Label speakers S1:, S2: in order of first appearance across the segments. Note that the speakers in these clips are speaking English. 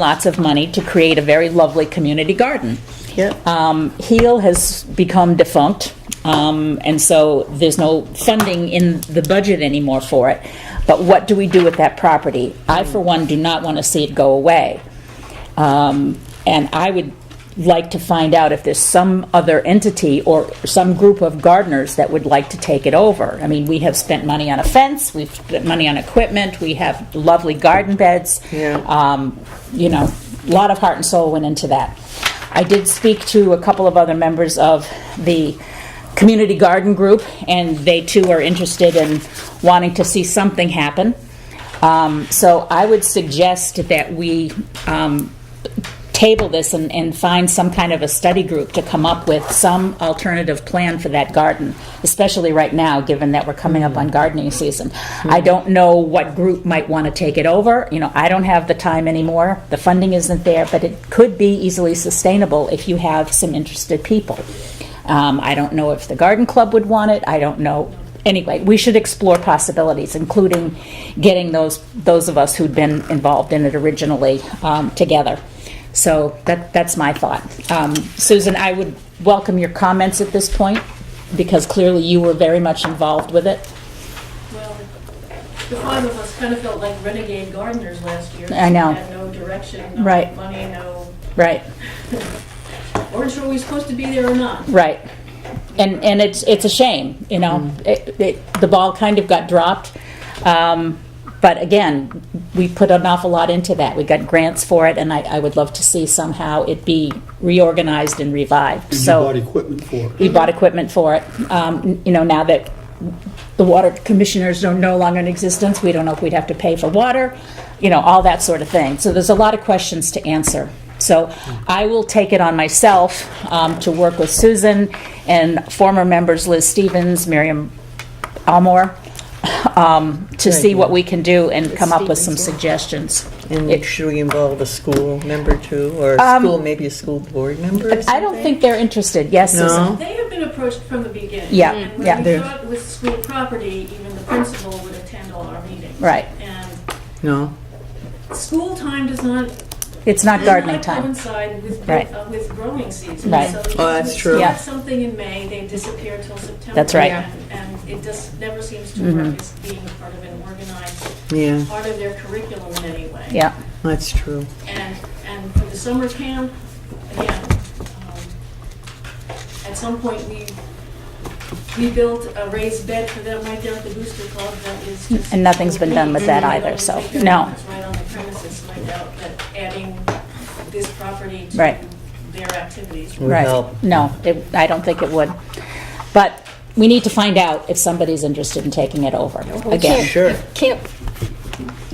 S1: lots of money to create a very lovely community garden.
S2: Yep.
S1: Um, Heal has become defunct, um, and so there's no funding in the budget anymore for it. But what do we do with that property? I, for one, do not want to see it go away. Um, And I would like to find out if there's some other entity or some group of gardeners that would like to take it over. I mean, we have spent money on a fence, we've spent money on equipment, we have lovely garden beds.
S2: Yeah.
S1: Um, You know, a lot of heart and soul went into that. I did speak to a couple of other members of the community garden group, and they too are interested in wanting to see something happen. Um, So I would suggest that we um, table this and, and find some kind of a study group to come up with some alternative plan for that garden, especially right now, given that we're coming up on gardening season. I don't know what group might want to take it over, you know, I don't have the time anymore, the funding isn't there, but it could be easily sustainable if you have some interested people. Um, I don't know if the garden club would want it, I don't know, anyway, we should explore possibilities, including getting those, those of us who'd been involved in it originally, um, together. So that, that's my thought. Um, Susan, I would welcome your comments at this point, because clearly you were very much involved with it.
S3: Well, the five of us kind of felt like renegade gardeners last year.
S1: I know.
S3: We had no direction, no
S1: Right.
S3: money, no,
S1: Right,
S3: weren't sure we were supposed to be there or not.
S1: right. And, and it's, it's a shame, you know? It, it, the ball kind of got dropped. Um, but again, we put an awful lot into that. We got grants for it, and I, I would love to see somehow it be reorganized and revived,
S4: You
S1: so.
S4: bought equipment for it.
S1: We bought equipment for it. Um, You know, now that the water commissioners are no longer in existence, we don't know if we'd have to pay for water, you know, all that sort of thing. So there's a lot of questions to answer. So I will take it on myself um, to work with Susan and former members Liz Stevens, Miriam Almore, um, to see what we can do and come up with some suggestions.
S2: And make sure we involve a school member too, or a school, maybe a school board member or
S1: Um, I don't
S2: something?
S1: think they're interested, yes, Susan?
S2: No?
S3: They have been approached from the beginning.
S1: Yeah,
S3: And
S1: yeah.
S3: when we
S2: They're-
S3: thought with school property, even the principal would attend all our meetings.
S1: Right.
S3: And
S2: No.
S3: school time does not. does
S1: It's not gardening
S3: not
S1: time.
S3: Coincide with,
S1: Right.
S3: uh, with growing season.
S1: Right.
S3: So
S2: Oh, that's
S3: if we
S2: true.
S1: Yeah.
S3: start something in May, they disappear till September.
S1: That's right. Mm-hmm.
S3: And and it just never seems to work as being part of an organized
S2: Yeah,
S3: part of their curriculum in any way.
S1: Yeah,
S2: that's true.
S3: And, and for the summer camp, again, um, at some point, we, we built a raised bed for them right there at the Booster Club that is just.
S1: And nothing's been done with that either, so,
S3: I don't think
S1: no.
S3: It's right on the premises, right out, but adding this property to
S1: Right.
S3: their activities.
S2: would
S1: Right.
S2: help.
S1: No, it- I don't think it would. But we need to find out if somebody's interested in taking it over
S5: We
S1: again.
S5: can't-
S2: Sure.
S5: Can't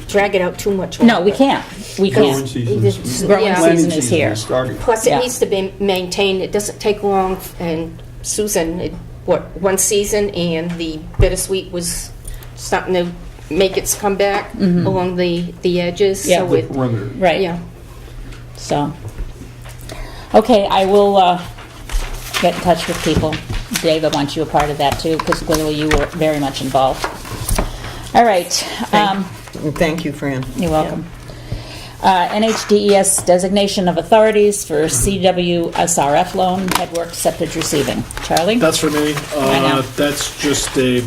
S5: drag it out too much.
S1: No, we
S5: longer.
S1: can't. We
S4: Growing
S1: can't.
S4: season.
S5: It's-
S4: is-
S5: Growing yeah.
S4: planting
S1: season is here.
S4: starting.
S5: Plus,
S1: Yeah.
S5: it needs to be maintained, it doesn't take long, and Susan, it- what, one season, and the bittersweet was starting to make its comeback along the, the edges,
S1: Mm-hmm. Yeah.
S5: so
S4: The
S5: it,
S4: perimeter.
S1: Right,
S5: yeah.
S1: so. Okay, I will uh, get in touch with people. David wants you a part of that too, because clearly you were very much involved. All right. um,
S2: And Thank you, Fran.
S1: You're welcome. Uh, NHDES designation of authorities for CWSRF loan, headwork septic receiving. Charlie?
S6: That's for me.
S1: know.
S6: Uh, That's just a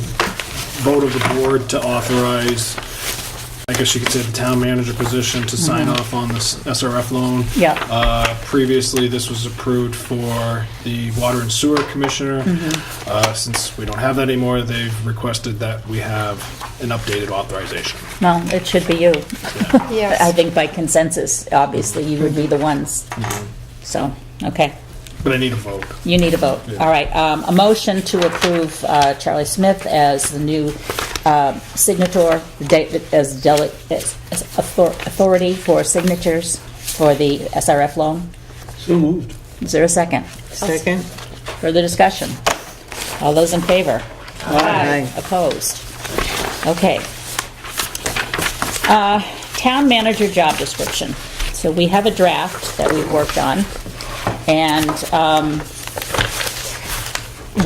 S6: vote of the board to authorize, I guess you could say, the town manager position to sign off on this SRF loan.
S1: Mm-hmm. Yeah.
S6: Uh, Previously, this was approved for the Water and Sewer Commissioner.
S1: Mm-hmm.
S6: Uh, Since we don't have that anymore, they've requested that we have an updated authorization.
S1: No, it should be you.
S5: Yes.
S1: I think by consensus, obviously, you would be the ones. So, okay,
S6: But I need a vote.
S1: you need a vote.
S6: Yeah.
S1: All right, um, a motion to approve uh, Charlie Smith as the new uh, signator, de- as dele- as as author- authority for signatures for the SRF loan.
S4: So moved.
S1: Is there a second?
S2: Second?
S1: Further discussion? All those in favor?
S2: Aye.
S1: Opposed? Okay. Uh, Town manager job description. So we have a draft that we've worked on, and um,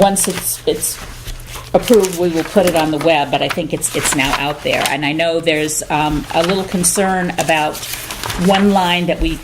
S1: once it's, it's approved, we will put it on the web, but I think it's, it's now out there. And I know there's um, a little concern about one line that we